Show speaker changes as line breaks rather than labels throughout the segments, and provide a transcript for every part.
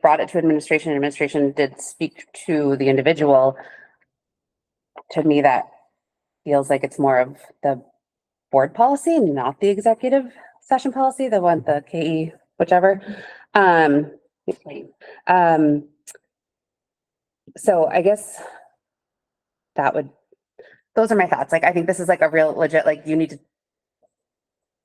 brought it to administration, administration did speak to the individual. To me, that feels like it's more of the board policy, not the executive session policy, the one, the KE, whichever. Um, um, so I guess that would, those are my thoughts. Like, I think this is like a real legit, like you need to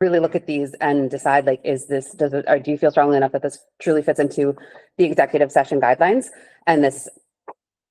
really look at these and decide like, is this, does it, or do you feel strongly enough that this truly fits into the executive session guidelines? And this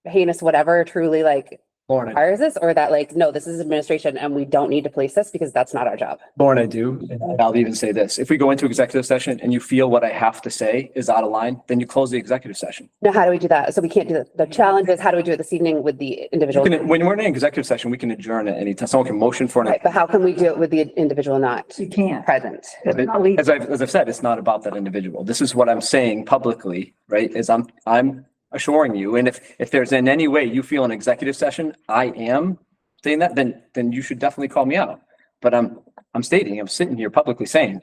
heinous whatever truly like
Lauren, I-
requires this, or that like, no, this is administration and we don't need to police this because that's not our job.
Lauren, I do, and I'll even say this, if we go into executive session and you feel what I have to say is out of line, then you close the executive session.
Now, how do we do that? So we can't do that. The challenge is how do we do it this evening with the
You
individual?
can- When we're in an executive session, we can adjourn at any time, someone can motion for an.
Right, but how can we do it with the individual not
You can't.
present?
As I've, as I've said, it's not about that individual, this is what I'm saying publicly, right, is I'm, I'm assuring you, and if, if there's in any way you feel an executive session, I am saying that, then, then you should definitely call me out. But I'm, I'm stating, I'm sitting here publicly saying,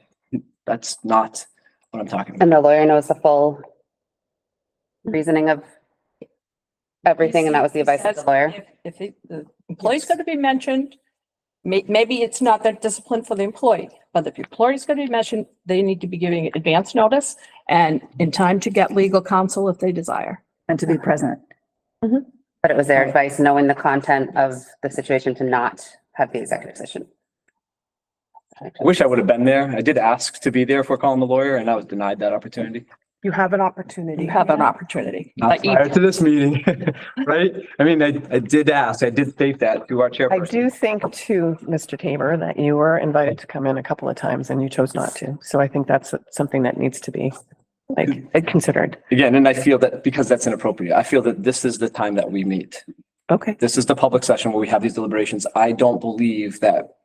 that's not what I'm talking about.
And the lawyer knows the full reasoning of everything, and that was the advice of the lawyer.
If- If it- the employee's going to be mentioned, may, maybe it's not that discipline for the employee, but if the employee's going to be mentioned, they need to be giving advance notice and in time to get legal counsel if they desire.
and to be present.
But it was their advice, knowing the content of the situation to not have the executive session.
I wish I would have been there. I did ask to be there for calling the lawyer and I was denied that opportunity.
You have an opportunity.
You have an opportunity.
Not
But you-
prior to this meeting, right? I mean, I, I did ask, I did state that to our
I
chairperson.
do think too, Mr. Tabor, that you were invited to come in a couple of times and you chose not to. So I think that's something that needs to be like considered.
Again, and I feel that because that's inappropriate, I feel that this is the time that we meet.
Okay.
This is the public session where we have these deliberations. I don't believe that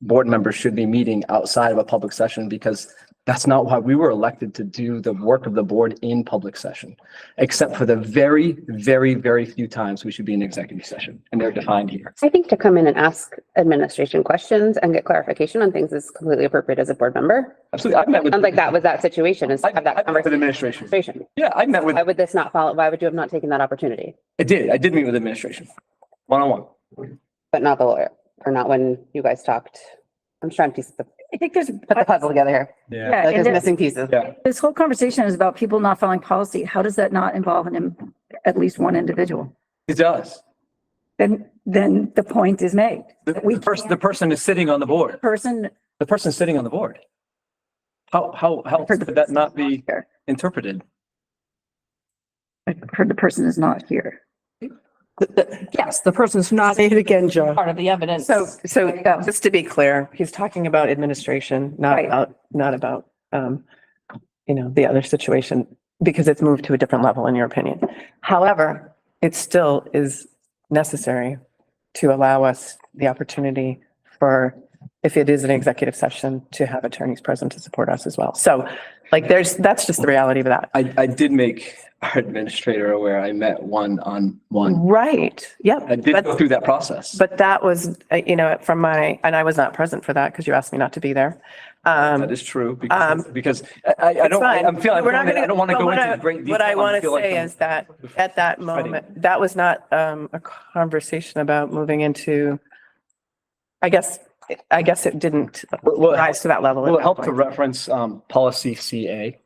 board members should be meeting outside of a public session because that's not why we were elected to do the work of the board in public session, except for the very, very, very few times we should be in executive session and they're defined here.
I think to come in and ask administration questions and get clarification on things is completely appropriate as a board member.
Absolutely. I've met with.
Sounds like that was that situation, is to
I-
have
I
that
met with
conversation.
administration. Yeah, I met with,
Why would this not follow, why would you have not taken that opportunity,
I did, I did meet with administration, one on one.
but not the lawyer, or not when you guys talked? I'm just trying to piece the,
I think there's,
put the puzzle together here.
Yeah.
yeah,
Like
and
there's
there-
missing pieces.
Yeah.
this whole conversation is about people not following policy. How does that not involve an, im- at least one individual?
It does.
Then, then the point is made.
The,
But we
the person,
can't-
the person is sitting on the board.
Person.
The person's sitting on the board. How, how, how
heard the
could that
person
not
is
be
here.
interpreted?
I heard the person is not here.
Yes, the person's not. Say it again, John.
Part of the evidence.
So, so
you go.
just to be clear, he's talking about administration, not
Right.
about, not about, um, you know, the other situation, because it's moved to a different level in your opinion. However, it still is necessary to allow us the opportunity for, if it is an executive session, to have attorneys present to support us as well. So like there's, that's just the reality of that.
I, I did make our administrator aware. I met one on one.
Right, yep.
I did
But-
go through that process.
But that was, uh, you know, from my, and I was not present for that because you asked me not to be there. Um,
That is true
um,
because, because I- I, I don't, I-
fine.
I'm feeling,
We're not
I
gonna-
don't want to
but
go
what I-
into great detail.
What I
and
want to
feel like
say
I'm-
is that at that
Fighting.
moment, that was not um, a conversation about moving into, I guess, I guess it didn't
Well, it
rise to that level. at
Will it
that
help to
point.
reference, um, policy CA?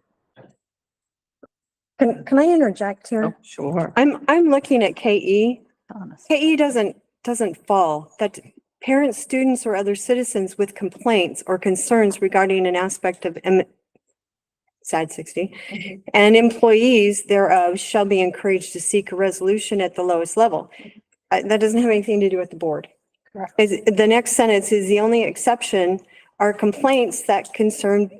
Can, can I interject here?
Sure.
I'm, I'm looking at KE.
Honest.
KE E doesn't, doesn't fall. That parents, students, or other citizens with complaints or concerns regarding an aspect of M- sad sixty, and employees thereof shall be encouraged to seek a resolution at the lowest level. Uh, that doesn't have anything to do with the board.
Correct.
Is, the next sentence is the only exception are complaints that concern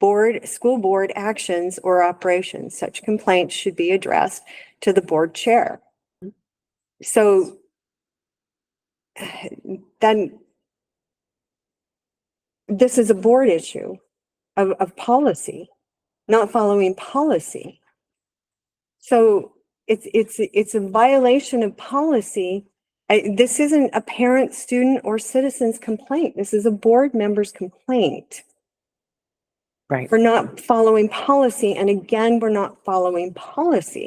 board, school board actions or operations. Such complaints should be addressed to the board chair. So then this is a board issue of, of policy, not following policy. So it's, it's, it's a violation of policy. I- This isn't a parent, student, or citizen's complaint. This is a board member's complaint.
Right.
for not following policy. And again, we're not following policy.